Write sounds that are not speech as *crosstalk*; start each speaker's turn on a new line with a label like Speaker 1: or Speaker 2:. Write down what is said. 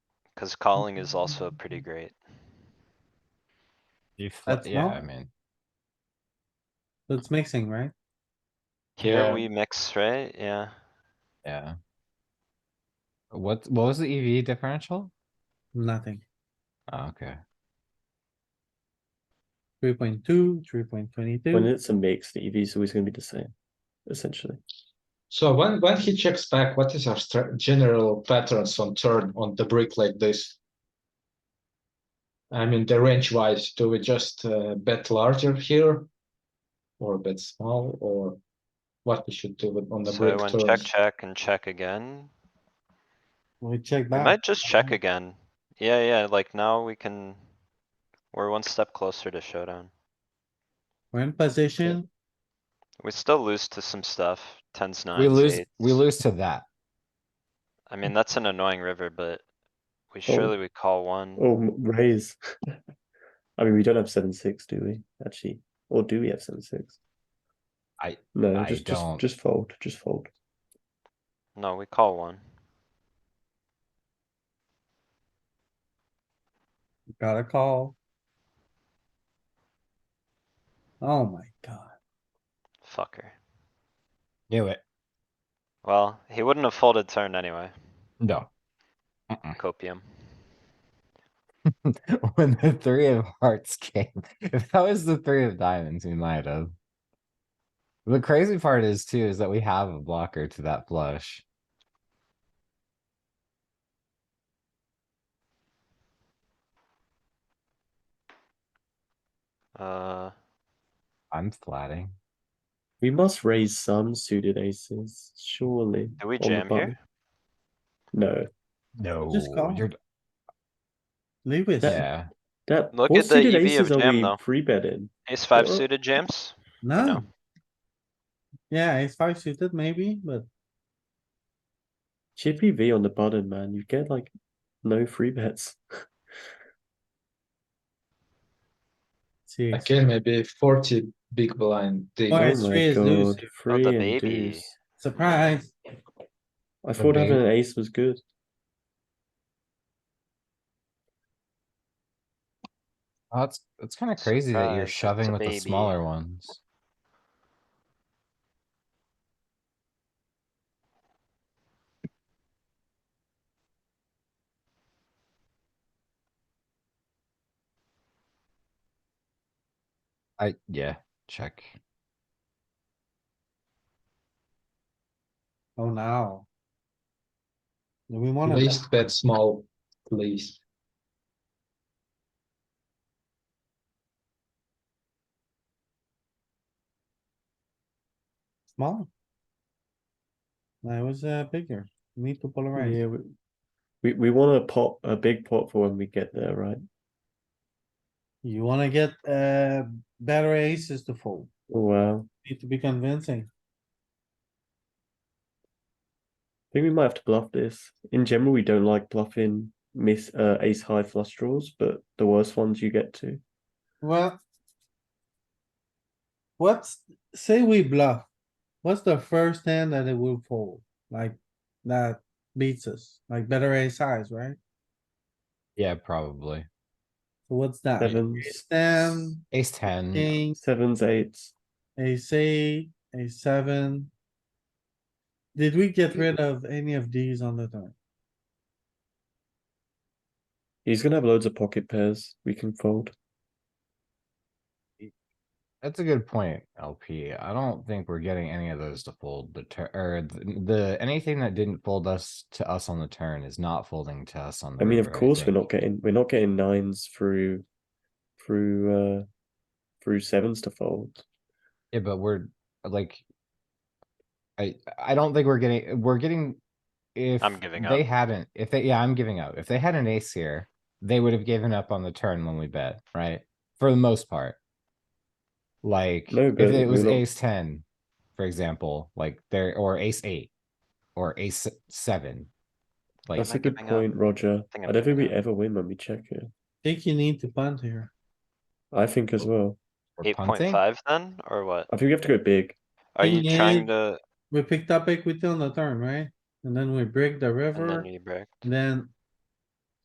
Speaker 1: Cause calling is also pretty great.
Speaker 2: You fl-
Speaker 3: That's
Speaker 2: yeah,
Speaker 3: not-
Speaker 2: I mean,
Speaker 3: That's mixing, right?
Speaker 1: Here
Speaker 2: Yeah.
Speaker 1: we mix, right? Yeah.
Speaker 2: yeah. What, what was the EV differential?
Speaker 3: Nothing.
Speaker 2: Oh, okay.
Speaker 3: Three point two, three point
Speaker 4: When
Speaker 3: twenty-two.
Speaker 4: it's a mix, the EV is always going to be the same, essentially.
Speaker 5: So when, when he checks back, what is our stra- general patterns on turn on the brick like this? I mean, the range wise, do we just uh, bet larger here? Or bet small, or what we should do with on the
Speaker 1: So I
Speaker 5: brick
Speaker 1: went check,
Speaker 5: turns?
Speaker 1: check and check again.
Speaker 3: We check
Speaker 1: We
Speaker 3: back.
Speaker 1: might just check
Speaker 3: Alright.
Speaker 1: again. Yeah, yeah, like now we can. We're one step closer to showdown.
Speaker 3: We're in position.
Speaker 1: We still lose to some stuff, tens, nines,
Speaker 2: We lose, we
Speaker 1: eights.
Speaker 2: lose to that.
Speaker 1: I mean, that's an annoying river, but we
Speaker 4: Oh.
Speaker 1: surely would call one.
Speaker 4: Oh, m- raise. *laughs* I mean, we don't have seven six, do we? Actually, or do we have seven six?
Speaker 2: I-
Speaker 4: no,
Speaker 2: I
Speaker 4: just
Speaker 2: don't.
Speaker 4: just just fold, just fold.
Speaker 1: No, we call one.
Speaker 3: Got a call. Oh my god.
Speaker 1: Fucker.
Speaker 2: Knew it.
Speaker 1: Well, he wouldn't have folded turn anyway.
Speaker 2: No. *laughs* Mm-mm.
Speaker 1: Copium.
Speaker 2: When the three of hearts came, *laughs* if that was the three of diamonds, we might have. The crazy part is too, is that we have a blocker to that flush.
Speaker 1: Uh,
Speaker 2: I'm flatting.
Speaker 4: We must raise some suited aces, surely.
Speaker 1: do we
Speaker 4: on the
Speaker 1: jam
Speaker 4: button.
Speaker 1: here?
Speaker 4: No,
Speaker 2: No.
Speaker 3: call.
Speaker 2: You're,
Speaker 3: Lewis,
Speaker 2: yeah,
Speaker 4: that
Speaker 1: Look
Speaker 4: what
Speaker 1: at the
Speaker 4: suited
Speaker 1: EV of
Speaker 4: aces are
Speaker 1: jam,
Speaker 4: we
Speaker 1: though.
Speaker 4: pre betting?
Speaker 1: Ace five
Speaker 4: Well-
Speaker 1: suited jams?
Speaker 3: no.
Speaker 1: No.
Speaker 3: Yeah, it's five suited maybe, but
Speaker 4: Chippy V on the button, man. You get like no free bets.
Speaker 3: see.
Speaker 5: Okay, maybe forty big blind dig.
Speaker 3: Alright,
Speaker 4: oh
Speaker 3: three
Speaker 4: my
Speaker 3: is deuce.
Speaker 4: god,
Speaker 1: Not
Speaker 4: free
Speaker 1: the
Speaker 4: and
Speaker 1: baby.
Speaker 4: deuce.
Speaker 3: Surprise.
Speaker 4: I
Speaker 2: The
Speaker 4: thought having
Speaker 2: baby.
Speaker 4: an ace was good.
Speaker 2: Oh, it's, it's kinda crazy that
Speaker 1: Surprise,
Speaker 2: you're
Speaker 1: it's
Speaker 2: shoving
Speaker 1: a
Speaker 2: with the
Speaker 1: baby.
Speaker 2: smaller ones. I, yeah, check.
Speaker 3: Oh, now. Do we wanna?
Speaker 5: Least bet small, please.
Speaker 3: Small. That was uh bigger. Need to polarize.
Speaker 4: Yeah, we, we we want a pot, a big pot for when we get there, right?
Speaker 3: You wanna get uh better aces to fold.
Speaker 4: Oh wow,
Speaker 3: Need to be convincing.
Speaker 4: I think we might have to bluff this. In general, we don't like bluffing miss uh, ace high flush draws, but the worst ones you get to.
Speaker 3: Well. What's, say we bluff, what's the first hand that it will fold? Like, that beats us, like better ace size, right?
Speaker 2: Yeah, probably.
Speaker 3: So what's that?
Speaker 4: Sevens,
Speaker 3: Ace ten,
Speaker 2: Ace ten,
Speaker 3: king,
Speaker 4: sevens, eights.
Speaker 3: ace eight, ace seven. Did we get rid of any of these on the turn?
Speaker 4: He's gonna have loads of pocket pairs. We can fold.
Speaker 2: that's a good point, LP. I don't think we're getting any of those to fold the turn, or th- the, anything that didn't fold us to us on the turn is not folding to us on the.
Speaker 4: I mean, of
Speaker 2: river,
Speaker 4: course, we're
Speaker 2: think.
Speaker 4: not getting we're not getting nines through, through, uh, through sevens to fold.
Speaker 2: Yeah, but we're like. I, I don't think we're getting, we're getting. If
Speaker 1: giving
Speaker 2: they
Speaker 1: up.
Speaker 2: hadn't, if they, yeah, I'm giving up. If they had an ace here, they would have given up on the turn when we bet, right? For the most part. Like,
Speaker 4: No,
Speaker 2: if
Speaker 4: but
Speaker 2: it was
Speaker 4: we're not-
Speaker 2: ace ten, for example, like there, or ace eight, or ace seven. Like,
Speaker 4: That's
Speaker 1: am I
Speaker 4: a good
Speaker 1: giving up?
Speaker 4: point, Roger.
Speaker 1: think
Speaker 4: I,
Speaker 1: I'm
Speaker 4: don't think
Speaker 1: giving
Speaker 4: we
Speaker 1: up.
Speaker 4: ever win when we check here.
Speaker 3: Think you need to punt here.
Speaker 4: I think as well.
Speaker 2: we're
Speaker 1: Eight point
Speaker 2: punting,
Speaker 1: five then, or what?
Speaker 4: I think we have to go big.
Speaker 1: Are you trying
Speaker 3: Eight.
Speaker 1: to,
Speaker 3: We picked up equity on the turn, right? And then we break the
Speaker 1: and
Speaker 3: river,
Speaker 1: then you break?
Speaker 3: then